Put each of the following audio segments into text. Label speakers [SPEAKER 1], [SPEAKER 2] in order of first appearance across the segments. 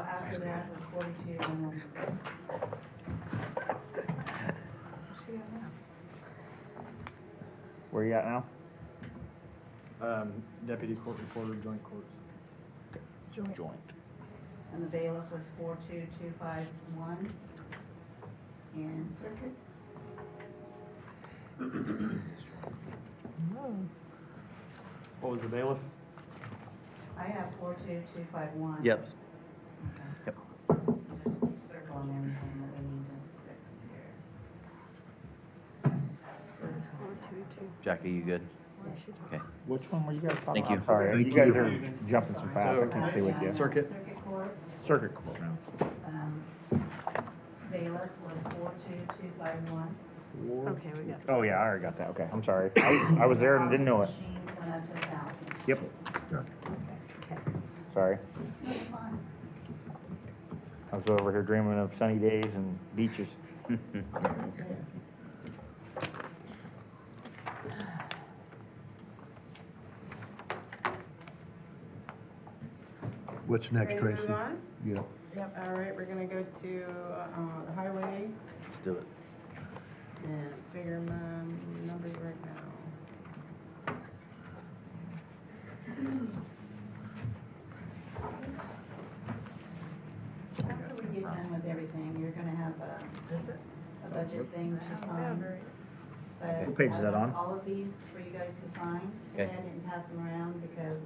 [SPEAKER 1] after that was forty-two and then six. She got now.
[SPEAKER 2] Where you at now?
[SPEAKER 3] Um, deputy court reporter, joint courts.
[SPEAKER 4] Joint.
[SPEAKER 1] And the bailiff was four-two-two-five-one. And circuit,
[SPEAKER 4] Oh.
[SPEAKER 3] What was the bailiff?
[SPEAKER 1] I have four-two-two-five-one.
[SPEAKER 2] Yep.
[SPEAKER 1] Okay.
[SPEAKER 2] Yep.
[SPEAKER 1] Just circling everything that we need to fix here.
[SPEAKER 5] Jackie, you good?
[SPEAKER 2] Which one were you guys talking
[SPEAKER 5] Thank
[SPEAKER 2] about?
[SPEAKER 5] you.
[SPEAKER 2] Sorry,
[SPEAKER 3] Thank
[SPEAKER 2] you guys
[SPEAKER 3] you.
[SPEAKER 2] are jumping so fast, I can't stay with
[SPEAKER 1] Uh,
[SPEAKER 2] you.
[SPEAKER 3] Circuit.
[SPEAKER 1] Circuit court,
[SPEAKER 2] Circuit court now.
[SPEAKER 1] um, bailiff was four-two-two-five-one.
[SPEAKER 4] Okay, we got
[SPEAKER 2] Oh, yeah, I already got that, okay, I'm sorry. I I was there and didn't know it.
[SPEAKER 1] Machines went up to a thousand.
[SPEAKER 2] Yep,
[SPEAKER 4] Okay.
[SPEAKER 2] sorry.
[SPEAKER 1] No, you're fine.
[SPEAKER 2] I was over here dreaming of sunny days and beaches.
[SPEAKER 6] What's next,
[SPEAKER 7] Ready to
[SPEAKER 6] Tracy?
[SPEAKER 7] move on?
[SPEAKER 6] Yeah.
[SPEAKER 7] Yep, all right, we're gonna go to, uh, the highway
[SPEAKER 5] Let's do it.
[SPEAKER 7] and figure my numbers right now.
[SPEAKER 1] After we get done with everything, you're gonna have a, a budget thing to sign. but
[SPEAKER 2] What page is
[SPEAKER 1] I
[SPEAKER 2] that
[SPEAKER 1] want
[SPEAKER 2] on?
[SPEAKER 1] All of these for you guys to sign,
[SPEAKER 5] Okay.
[SPEAKER 1] and I didn't pass them around because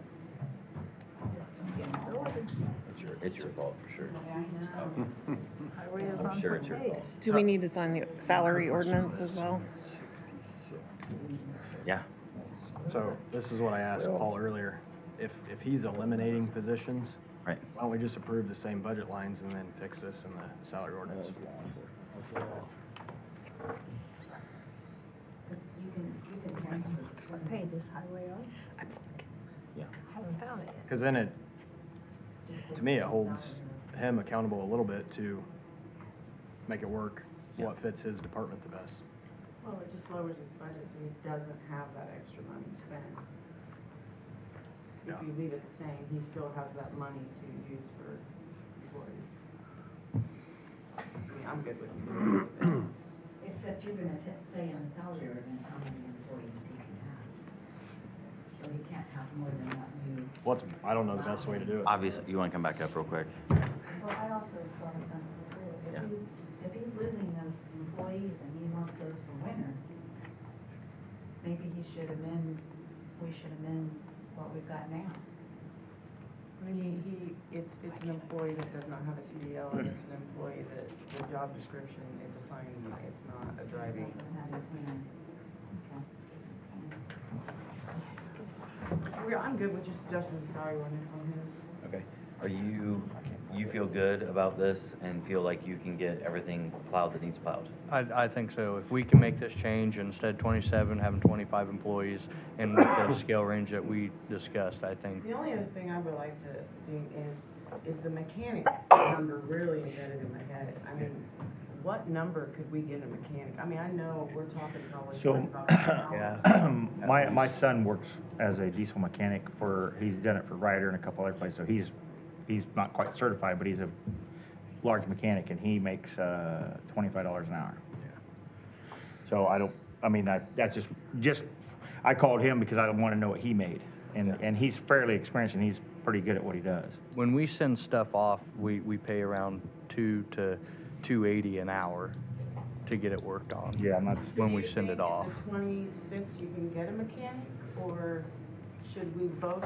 [SPEAKER 1] I just don't get them all.
[SPEAKER 5] It's your, it's your fault for sure.
[SPEAKER 1] Okay, I know.
[SPEAKER 4] Highway is
[SPEAKER 5] I'm
[SPEAKER 4] on
[SPEAKER 5] sure it's your
[SPEAKER 4] page.
[SPEAKER 5] fault.
[SPEAKER 8] Do we need to sign the salary ordinance as well?
[SPEAKER 5] Yeah.
[SPEAKER 3] So this is what I asked Paul earlier. If, if he's eliminating positions.
[SPEAKER 5] Right.
[SPEAKER 3] Why don't we just approve the same budget lines and then fix this in the salary ordinance?
[SPEAKER 1] You can, you can transfer.
[SPEAKER 4] What page is highway on?
[SPEAKER 5] Yeah.
[SPEAKER 4] Haven't found it
[SPEAKER 3] Cause then it, to me, it holds him accountable a little bit to make it work, what fits his department the best.
[SPEAKER 7] Well, it just lowers his budget, so he doesn't have that extra money to spend.
[SPEAKER 3] Yeah.
[SPEAKER 7] If you leave it the same, he still has that money to use for employees. I mean, I'm good with it.
[SPEAKER 1] Except you're gonna t- say on the salary ordinance how many employees he can have. So he can't have more than what you.
[SPEAKER 3] What's, I don't know the best way to do it.
[SPEAKER 5] Obviously, you wanna come back up real quick?
[SPEAKER 1] Well, I also thought of something too. If
[SPEAKER 5] Yeah.
[SPEAKER 1] he's, if he's losing those employees and he wants those for winter, maybe he should amend, we should amend what we've got now.
[SPEAKER 7] He, he, it's, it's an employee that does not have a CDL, and it's an employee that, the job description, it's assigned, it's not a driving.
[SPEAKER 1] That's not his winter. Okay.
[SPEAKER 7] We're- I'm good with just Justin's salary ordinance on his.
[SPEAKER 5] Okay. Are you, you feel good about this and feel like you can get everything plowed that needs plowed?
[SPEAKER 9] I, I think so. If we can make this change, instead of 27, having 25 employees, and with the scale range that we discussed, I think
[SPEAKER 7] The only other thing I would like to do is, is the mechanic number really embedded in my head. I mean, what number could we get a mechanic? I mean, I know we're talking probably
[SPEAKER 2] So-
[SPEAKER 7] forty-five dollars.
[SPEAKER 2] My, my son works as a diesel mechanic for, he's done it for Ryder and a couple other places, so he's, he's not quite certified, but he's a large mechanic and he makes, uh, twenty-five dollars an hour. So I don't, I mean, I, that's just, just, I called him because I want to know what he made. And, and he's fairly experienced and he's pretty good at what he does.
[SPEAKER 9] when we send stuff off, we, we pay around two to 280 an hour to get it worked on.
[SPEAKER 2] Yeah, and that's,
[SPEAKER 9] when we send it off.
[SPEAKER 7] Twenty-six, you can get a mechanic, or should we boast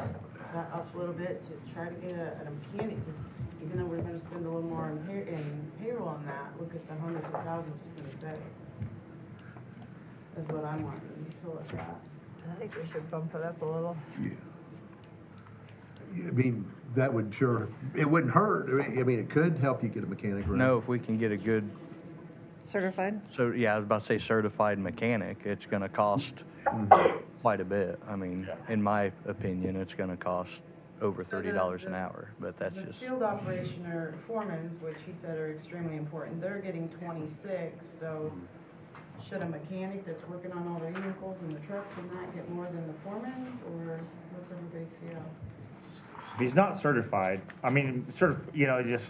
[SPEAKER 7] that up a little bit to try to get a, a mechanic? 'Cause Even though we're gonna spend a little more in pay, in payroll on that, look at the hundreds of thousands it's gonna save. Is what I'm wanting to look at.
[SPEAKER 4] I think we should bump it up a little.
[SPEAKER 6] Yeah. Yeah, I mean, that would sure, it wouldn't hurt. I mean- I mean, it could help you get a mechanic, right?
[SPEAKER 9] No, if we can get a good,
[SPEAKER 8] Certified?
[SPEAKER 9] so, yeah, I was about to say certified mechanic, it's gonna cost quite a bit. I mean, in my opinion, it's gonna cost over
[SPEAKER 7] So the-
[SPEAKER 9] $30 an
[SPEAKER 7] the-
[SPEAKER 9] hour, but that's
[SPEAKER 7] The
[SPEAKER 9] just.
[SPEAKER 7] field operationer foremans, which he said are extremely important, they're getting twenty-six, so should a mechanic that's working on all the vehicles and the trucks and that get more than the foremans, or what's everybody feel?
[SPEAKER 2] he's not certified. I mean, sort of, you know, just